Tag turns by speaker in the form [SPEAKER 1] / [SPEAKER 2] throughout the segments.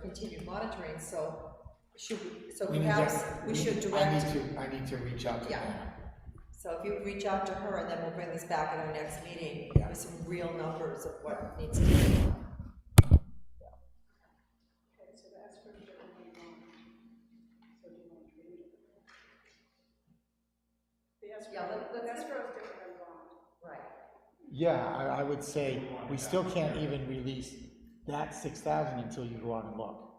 [SPEAKER 1] continued monitoring, so should we, so
[SPEAKER 2] We need to-
[SPEAKER 1] perhaps we should
[SPEAKER 2] I
[SPEAKER 1] direct,
[SPEAKER 2] need to, I need to reach out to
[SPEAKER 1] Yeah.
[SPEAKER 2] them.
[SPEAKER 1] so if you reach out to her, and then we'll bring this back at our next meeting
[SPEAKER 2] Yeah.
[SPEAKER 1] with some real numbers of what needs to be done. Yeah, let- let's- Right.
[SPEAKER 2] Yeah, I, I would say, we still can't even release that six thousand until you go out and look.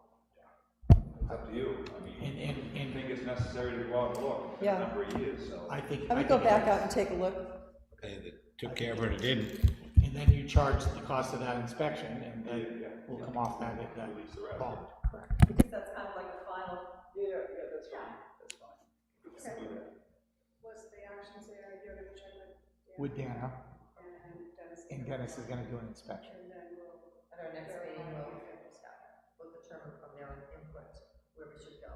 [SPEAKER 3] It's up to you, I mean,
[SPEAKER 2] And, and,
[SPEAKER 3] I
[SPEAKER 2] and
[SPEAKER 3] think it's necessary to go out and look, it's been
[SPEAKER 1] Yeah.
[SPEAKER 3] a number of years, so.
[SPEAKER 2] I think.
[SPEAKER 1] I would
[SPEAKER 2] I
[SPEAKER 1] go
[SPEAKER 2] think it
[SPEAKER 1] back out
[SPEAKER 2] is.
[SPEAKER 1] and take a look.
[SPEAKER 4] They took care of it or didn't.
[SPEAKER 2] And then you charge the cost of that inspection, and then we'll come off that, that
[SPEAKER 3] Release the rest.
[SPEAKER 2] bond.
[SPEAKER 5] Because that's kind of like a final.
[SPEAKER 3] Yeah, yeah, that's fine, that's fine. Let's do that.
[SPEAKER 6] was the actions there, you're gonna check with Dan
[SPEAKER 2] With Dana,
[SPEAKER 6] and Dennis.
[SPEAKER 2] and Dennis is gonna do an inspection.
[SPEAKER 6] And then we'll,
[SPEAKER 1] At our next meeting, we'll, we'll determine from their input where we should go.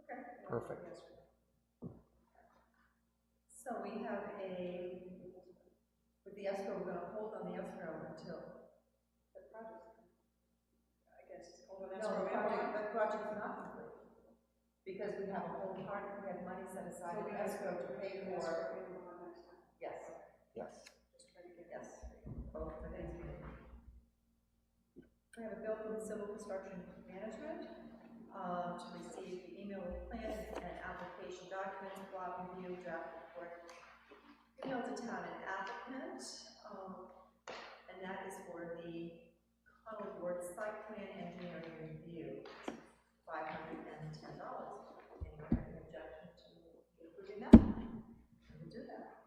[SPEAKER 6] okay.
[SPEAKER 2] Perfect.
[SPEAKER 1] So we have a, with the escrow, we're gonna hold on the escrow until.
[SPEAKER 6] The project, I guess, all of
[SPEAKER 1] No,
[SPEAKER 6] that's
[SPEAKER 1] the
[SPEAKER 6] where we
[SPEAKER 1] project,
[SPEAKER 6] are.
[SPEAKER 1] the project's not complete. Because we have a whole part, we have money set aside in escrow to pay
[SPEAKER 6] That's
[SPEAKER 1] for.
[SPEAKER 6] where we are next time,
[SPEAKER 1] Yes,
[SPEAKER 2] Yes.
[SPEAKER 6] just try to get.
[SPEAKER 1] yes. Oh, for next meeting. We have a bill from Civil Construction Management, um, to receive the email with plans and application documents, block review, draft report. Email to town and applicant, um, and that is for the Connell Ward Site Plan Engineering Review, five hundred and ten dollars. Anyone have an objection to approving that? We'll do that.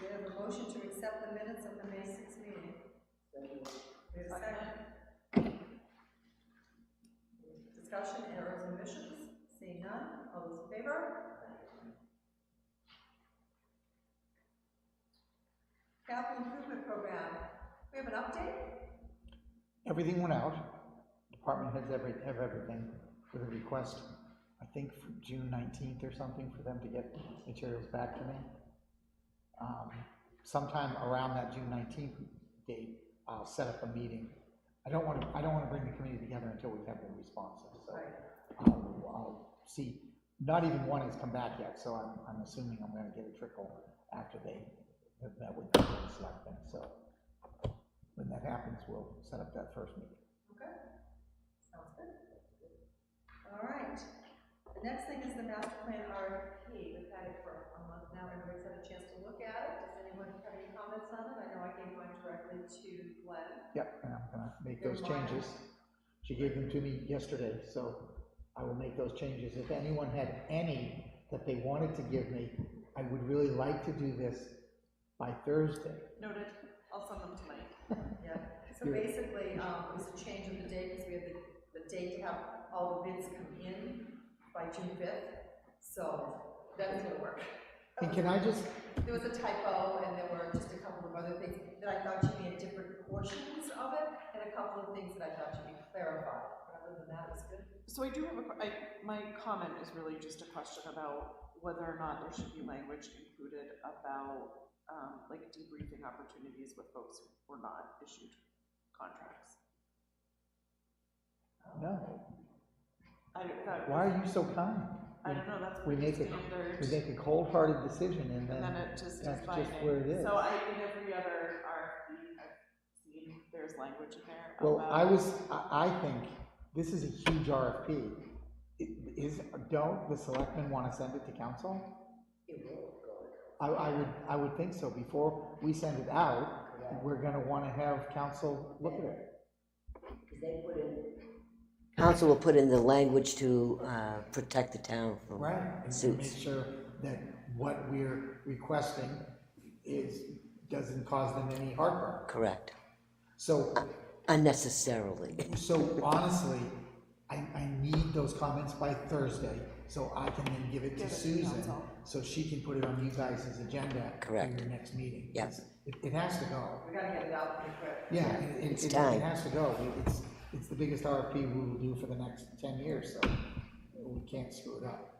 [SPEAKER 1] We have a motion to accept the minutes of the May sixth meeting. We have a second. Discussion, errors, and omissions, seeing none, all those in favor? Capital improvement program, we have an update?
[SPEAKER 2] Everything went out, department heads every, have everything for the request, I think for June nineteenth or something, for them to get materials back to me. Um, Sometime around that June nineteenth date, I'll set up a meeting. I don't wanna, I don't wanna bring the committee together until we have the responses, so. I'll, I'll Oh, see, not even one has come back yet, so I'm, I'm assuming I'm gonna get a trickle after they, that- that would be the selectmen, so. When that happens, we'll set up that first meeting.
[SPEAKER 1] Okay, sounds good. All right, the next thing is the master plan RFP, we've had it for a month now, everybody's had a chance to look at it, does anyone have any comments on it? I know I gave mine directly to Glenn.
[SPEAKER 2] Yep, and I'm gonna make
[SPEAKER 1] Good
[SPEAKER 2] those
[SPEAKER 1] morning.
[SPEAKER 2] changes. She gave them to me yesterday, so I will make those changes. If anyone had any that they wanted to give me, I would really like to do this by Thursday.
[SPEAKER 5] Noted, I'll send them to Mike.
[SPEAKER 1] Yeah, so
[SPEAKER 2] Yeah.
[SPEAKER 1] basically, um, it was a change of the date, because we had the, the date to have all the bids come in by June fifth, so that is gonna work.
[SPEAKER 2] And can I just,
[SPEAKER 1] There was a typo, and there were just a couple of other things that I thought should be in different portions of it, and a couple of things that I thought should be clarified, but other than that, it's good.
[SPEAKER 5] So I do have a que- I- my comment is really just a question about whether or not there should be language included about, um, like debriefing opportunities with folks who were not issued contracts.
[SPEAKER 2] no,
[SPEAKER 5] I don't, that,
[SPEAKER 2] why are you so kind?
[SPEAKER 5] I don't know, that's
[SPEAKER 2] We
[SPEAKER 5] pretty
[SPEAKER 2] make a,
[SPEAKER 5] standard.
[SPEAKER 2] we make a cold-hearted decision and
[SPEAKER 5] And then
[SPEAKER 2] then,
[SPEAKER 5] it just is
[SPEAKER 2] that's
[SPEAKER 5] binding.
[SPEAKER 2] just where it is.
[SPEAKER 5] So I, in every other RFP I've seen, there's language in there about.
[SPEAKER 2] Well, I was, I, I think this is a huge RFP. I- Is, don't the selectmen want to send it to council? I, I would, I would think so. Before we send it out, we're gonna want to have council look at it.
[SPEAKER 7] Council will put in the language to uh, protect the town from
[SPEAKER 2] And to make
[SPEAKER 7] suits.
[SPEAKER 2] sure that what we're requesting is, doesn't cause them any heartburn.
[SPEAKER 7] Correct,
[SPEAKER 2] So,
[SPEAKER 7] unnecessarily.
[SPEAKER 2] so honestly, I, I need those comments by Thursday, so I can then give it
[SPEAKER 5] Give it
[SPEAKER 2] to
[SPEAKER 5] to
[SPEAKER 2] Susan,
[SPEAKER 5] council.
[SPEAKER 2] so she can put it on you guys' agenda for
[SPEAKER 7] Correct.
[SPEAKER 2] your next meeting.
[SPEAKER 7] Yeah.
[SPEAKER 2] It's- It, it has to go.
[SPEAKER 1] We gotta get it out pretty quick.
[SPEAKER 2] Yeah, it- it,
[SPEAKER 7] It's
[SPEAKER 2] it,
[SPEAKER 7] time.
[SPEAKER 2] it has to go. It- It's, it's the biggest RFP we will do for the next ten years, so we can't screw it up.